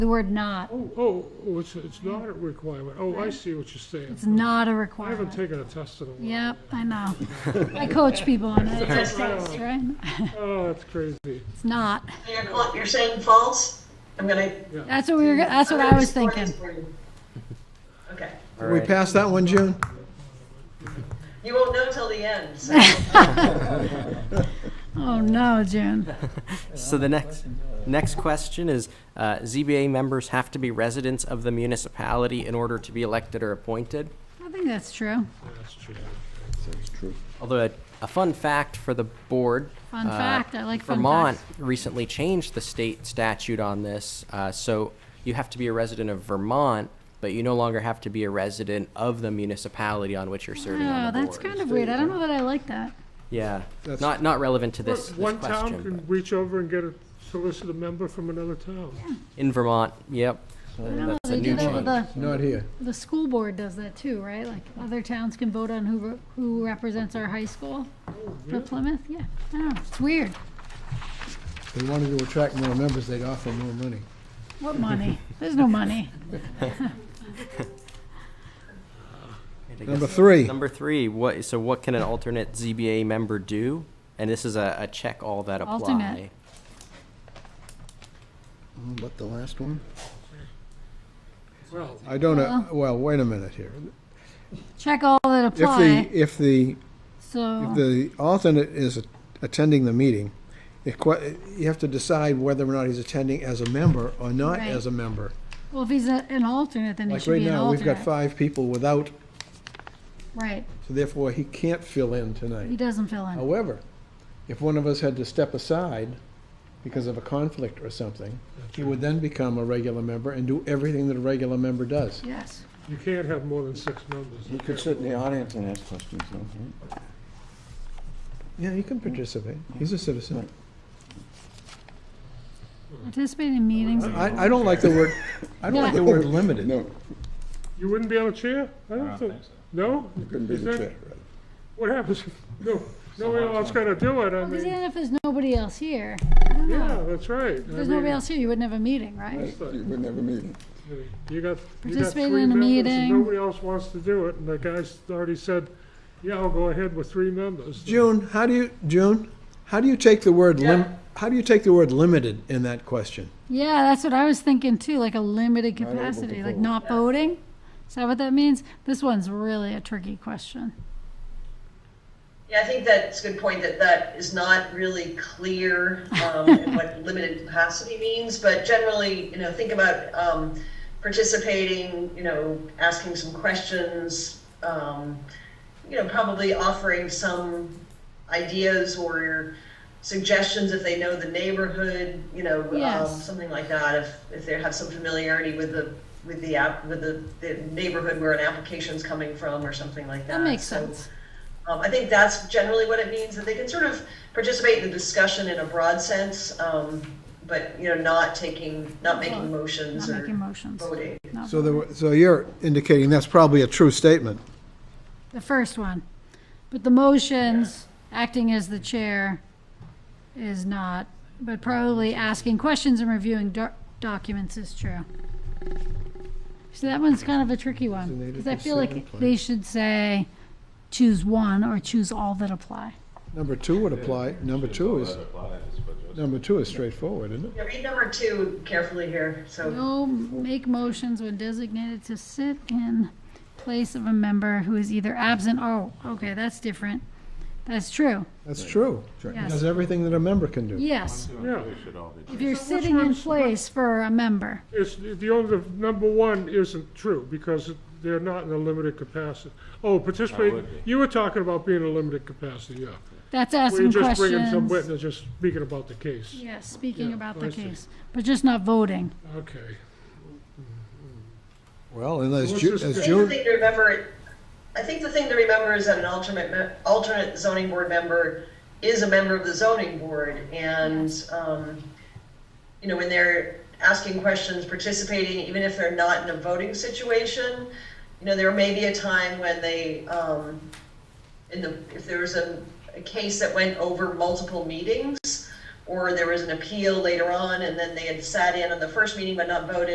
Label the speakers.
Speaker 1: The word not,
Speaker 2: Oh, oh, oh, it's, it's not a requirement. Oh, I see what you're saying.
Speaker 1: it's not a
Speaker 2: I haven't
Speaker 1: requirement.
Speaker 2: taken a test in a while.
Speaker 1: Yep, I know. I coach people on it, it's just, right?
Speaker 2: Oh, that's crazy.
Speaker 1: It's not.
Speaker 3: You're, call- you're saying false? I'm gonna.
Speaker 1: That's what we were, that's what I was thinking.
Speaker 3: Okay.
Speaker 4: All
Speaker 5: We
Speaker 4: right.
Speaker 5: passed that one, June?
Speaker 3: You won't know till the end, so.
Speaker 1: Oh, no, June.
Speaker 4: So the next, next question is, uh, ZBA members have to be residents of the municipality in order to be elected or appointed.
Speaker 1: I think that's true.
Speaker 2: That's true.
Speaker 4: Although a, a fun fact for the board.
Speaker 1: Fun
Speaker 4: uh,
Speaker 1: fact, I like fun
Speaker 4: Vermont
Speaker 1: facts.
Speaker 4: recently changed the state statute on this, uh, so you have to be a resident of Vermont, but you no longer have to be a resident of the municipality on which you're serving on
Speaker 1: Oh,
Speaker 4: the board.
Speaker 1: that's kind of weird. I don't know that I like that.
Speaker 4: Yeah,
Speaker 5: That's-
Speaker 4: not, not relevant to this, this
Speaker 2: One town
Speaker 4: question,
Speaker 2: can
Speaker 4: but
Speaker 2: reach over and get a solicitor member from another town.
Speaker 4: in Vermont, yep.
Speaker 1: I don't know,
Speaker 4: That's a
Speaker 1: they do
Speaker 4: new
Speaker 1: that with
Speaker 4: change.
Speaker 1: the,
Speaker 5: Not here.
Speaker 1: the school board does that too, right? Like, other towns can vote on who, re- who represents our high school for Plymouth, yeah. I don't know, it's weird.
Speaker 5: If they wanted to attract more members, they'd offer more money.
Speaker 1: What money? There's no money.
Speaker 5: Number three,
Speaker 4: Number three, what, so what can an alternate ZBA member do? And this is a, a check all that apply.
Speaker 1: Alternate.
Speaker 5: what, the last one?
Speaker 2: Well,
Speaker 5: I don't, know. well, wait a minute here.
Speaker 1: Check all that
Speaker 5: If the,
Speaker 1: apply,
Speaker 5: if the, if
Speaker 1: so,
Speaker 5: the alternate is attending the meeting, it que- you have to decide whether or not he's attending as a member or not
Speaker 1: Right.
Speaker 5: as a member.
Speaker 1: well, if he's a- an alternate, then he
Speaker 5: Like
Speaker 1: should
Speaker 5: right
Speaker 1: be an
Speaker 5: now, we've got
Speaker 1: alternate.
Speaker 5: five people without,
Speaker 1: Right,
Speaker 5: so therefore he can't fill in tonight.
Speaker 1: he doesn't fill in.
Speaker 5: However, if one of us had to step aside because of a conflict or something, he would then become a regular member and do everything that a regular member does.
Speaker 1: Yes,
Speaker 2: you can't have more than six members.
Speaker 6: You could sit in the audience and ask questions, though, right?
Speaker 5: Yeah, he can participate. He's a citizen.
Speaker 1: participating in meetings,
Speaker 5: I, I don't like the word, I don't like the word limited.
Speaker 6: No,
Speaker 2: You wouldn't be on a chair? I don't think. No?
Speaker 6: couldn't be
Speaker 2: Is
Speaker 6: the
Speaker 2: that-
Speaker 6: chair.
Speaker 2: What happens? if- No, no one else gonna do it, I
Speaker 1: Well, 'cause
Speaker 2: mean,
Speaker 1: even if there's nobody else here, I don't know.
Speaker 2: yeah, that's right. I
Speaker 1: If there's nobody
Speaker 2: mean,
Speaker 1: else here, you wouldn't have a meeting, right?
Speaker 6: right? You wouldn't have a meeting.
Speaker 2: You got, you got
Speaker 1: Participate
Speaker 2: three
Speaker 1: in a
Speaker 2: members and
Speaker 1: meeting.
Speaker 2: nobody else wants to do it, and the guy's already said, yeah, I'll go ahead with three members.
Speaker 5: June, how do you, June, how do you take the word lim, how do you take the word limited in that question?
Speaker 1: Yeah, that's what I was thinking too, like a limited
Speaker 6: able to
Speaker 1: capacity, like
Speaker 6: vote.
Speaker 1: not voting. Is that what that means? This one's really a tricky question.
Speaker 3: Yeah, I think that's a good point, that that is not really clear, um, in what limited capacity means, but generally, you know, think about, um, participating, you know, asking some questions, um, you know, probably offering some ideas or suggestions if they know the neighborhood, you know, um,
Speaker 1: Yes.
Speaker 3: something like that, if, if they have some familiarity with the, with the app, with the, the neighborhood where an application's coming from or something like that.
Speaker 1: That makes
Speaker 3: So,
Speaker 1: sense.
Speaker 3: um, I think that's generally what it means, that they can sort of participate in the discussion in a broad sense, um, but, you know, not taking, not making motions
Speaker 1: Not
Speaker 3: or
Speaker 1: making motions.
Speaker 3: voting.
Speaker 1: not
Speaker 5: So the, so you're indicating that's probably a true statement.
Speaker 1: The first one. But the motions, acting as the chair is not, but probably asking questions and reviewing doc- documents is true. So that one's kind of a tricky one, because I feel like they should say, choose one or choose all that apply.
Speaker 5: Number two would apply, number two is, number two is straightforward, isn't it?
Speaker 3: Yeah, read number two carefully here, so,
Speaker 1: No, make motions when designated to sit in place of a member who is either absent, oh, okay, that's different. That's true,
Speaker 5: That's true. He
Speaker 1: yes,
Speaker 5: does everything that a member can do.
Speaker 1: yes.
Speaker 2: Yeah.
Speaker 1: If you're sitting in
Speaker 2: one's-
Speaker 1: place for a member.
Speaker 2: It's, the only, the number one isn't true, because they're not in a limited capacity. Oh, participate, you were talking about being in a limited capacity, yeah.
Speaker 1: That's
Speaker 2: We're
Speaker 1: asking
Speaker 2: just bringing some
Speaker 1: questions.
Speaker 2: witness, just speaking about the case.
Speaker 1: Yes, speaking
Speaker 2: Yeah,
Speaker 1: about
Speaker 2: I
Speaker 1: the
Speaker 2: see.
Speaker 1: case, but just not voting.
Speaker 2: Okay.
Speaker 5: Well, and as
Speaker 2: What's
Speaker 5: Ju-
Speaker 2: this
Speaker 5: as
Speaker 3: I think the
Speaker 5: June,
Speaker 3: thing to remember, I think the thing to remember is that an alternate, me- alternate zoning board member is a member of the zoning board, and, um, you know, when they're asking questions, participating, even if they're not in a voting situation, you know, there may be a time when they, um, in the, if there was a, a case that went over multiple meetings, or there was an appeal later on, and then they had sat in on the first meeting but not voted.